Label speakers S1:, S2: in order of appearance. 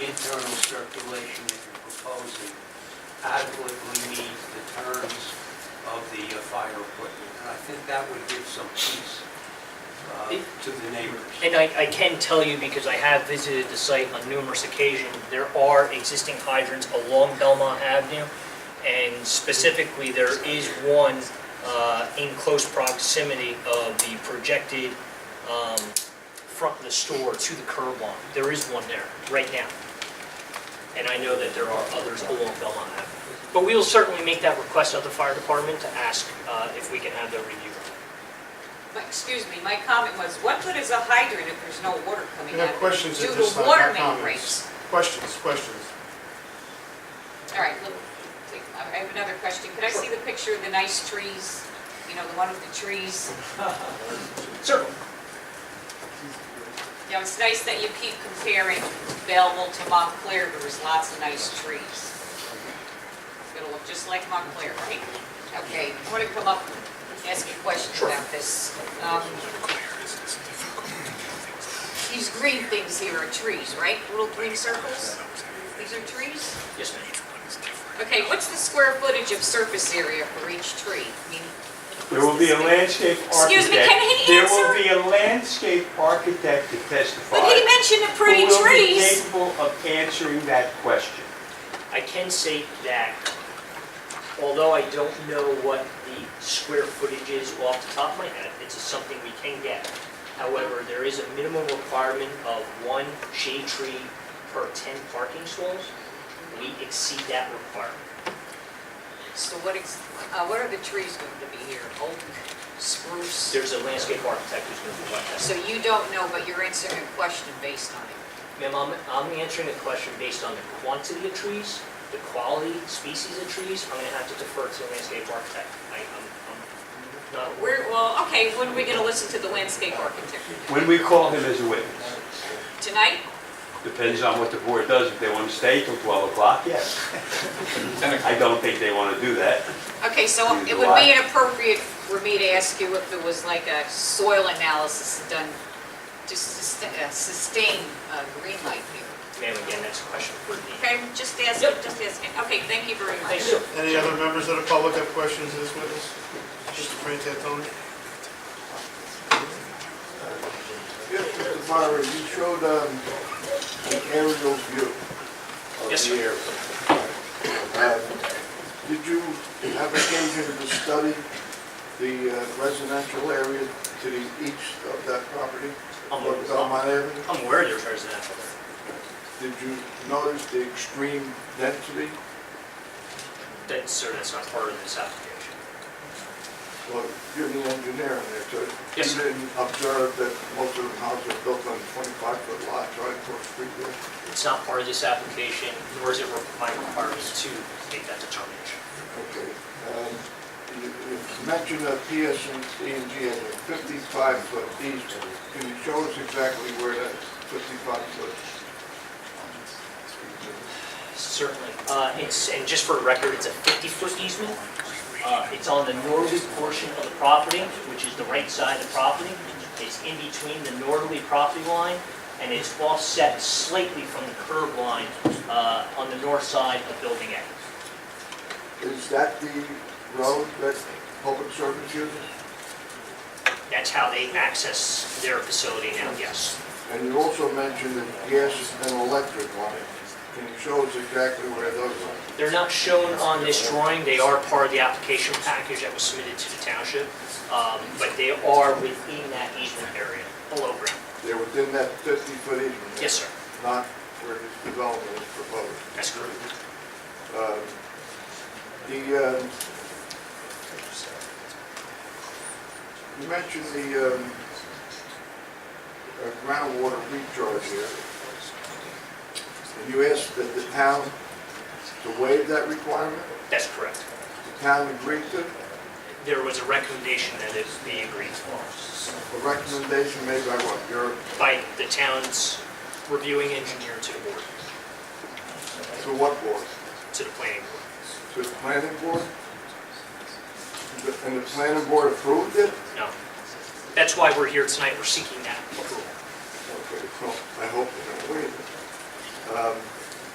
S1: adequately meet the terms of the uh, fire equipment. And I think that would give some peace uh, to the neighbors.
S2: And I, I can tell you, because I have visited the site on numerous occasions, there are existing hydrants along Belmont Avenue, and specifically, there is one uh, in close proximity of the projected um, front of the store to the curb line. There is one there, right now. And I know that there are others along Belmont Avenue. But we will certainly make that request of the fire department to ask uh, if we can have their review.
S3: My- Excuse me, my comment was, what good is a hydrant if there's no water coming
S4: We
S3: out? of
S4: have
S3: it
S4: questions at
S3: Due
S4: this
S3: to
S4: time,
S3: water
S4: not
S3: main
S4: comments.
S3: breaks.
S4: Questions, questions.
S3: All right, look, take- I have another question. Could I see the picture of the nice trees? You know, the one with the trees?
S2: Certainly.
S3: You know, it's nice that you keep comparing Belleville to Montclair. There's lots of nice trees. It's gonna look just like Montclair, right? Okay, I want to come up and ask you questions about this. Um, These green things here are trees, right? Little green circles? These are trees?
S2: Yes, ma'am.
S3: Okay, what's the square footage of surface area for each tree? I mean,
S5: There will be a landscape architect.
S3: Excuse me, can he
S5: There
S3: answer?
S5: will be a landscape architect to testify.
S3: But he mentioned the pretty
S5: Who will be
S3: trees.
S5: capable of answering that question.
S2: I can say that, although I don't know what the square footage is off the top of my head, it's something we can get. However, there is a minimum requirement of one shade tree per 10 parking stalls. We exceed that requirement.
S3: So what is, uh, what are the trees going to be here? Oak, spruce?
S2: There's a landscape architect who's going to provide that.
S3: So you don't know, but you're answering a question based on it.
S2: Ma'am, I'm- I'm answering the question based on the quantity of trees, the quality, species of trees. I'm going to have to defer to the landscape architect. I- I'm I'm not aware.
S3: We're, well, okay, when are we going to listen to the landscape architect?
S5: When we call him as a witness,
S3: Tonight?
S5: depends on what the board does. If they want to stay till 12 o'clock, yes. I don't think they want to do that.
S3: Okay, so it would be inappropriate for me to ask you if there was like a soil analysis done to sustain, uh, sustain uh, green life here.
S2: Ma'am, again, that's a question for the
S3: Okay, just asking, just asking. Okay, thank you very much.
S2: Thank you.
S4: Any other members of the public have questions of this witness? Mr. Frantantoni?
S6: Yes, Mr. Byron, you showed um, an aerial view of
S2: Yes,
S6: the area. Um, Did you have occasion to study the uh, residential area to the east of that property?
S2: I'm-
S6: Or Belmont Avenue?
S2: I'm aware there's residential
S6: Did you notice the extreme density?
S2: there. That's, sir, that's not part of this application.
S6: Well, you're the engineer in there, so
S2: Yes, sir.
S6: You didn't observe that most of the houses are built on 25-foot lots, right, for a street there?
S2: It's not part of this application, nor is it re- my requirement to make that determination.
S6: Okay. um, You you mentioned that PSC&G E has a 55-foot easement. Can you show us exactly where that 55-foot?
S2: Certainly. Uh, it's, and just for the record, it's a 50-foot easement. Uh, it's on the northern portion of the property, which is the right side of the property. It's in between the northerly property line, and it's offset slightly from the curb line, uh, on the north side of Building A.
S6: Is that the road that public service uses?
S2: That's how they access their facility now, yes.
S6: And you also mentioned that gas and electric on it. Can you show us exactly where those are?
S2: They're not shown on this drawing, they are part of the application package that was submitted to the township, um, but they are within that easement area, below ground.
S6: They're within that 50-foot easement?
S2: Yes, sir,
S6: Not where this development is proposed?
S2: that's correct.
S6: Um, The, um, you mentioned the um, uh, groundwater recharge here. And you asked that the town to waive that requirement?
S2: That's correct.
S6: The town agreed to, it.
S2: There was a recommendation that it be agreed to
S6: a recommendation made by what, your,
S2: by the town's reviewing engineer to the board,
S6: to what board?
S2: to the planning board.
S6: To the planning board? The- And the planning board approved it?
S2: No. That's why we're here tonight, we're seeking that approval.
S6: Okay, well, I hope they don't waive it. Um,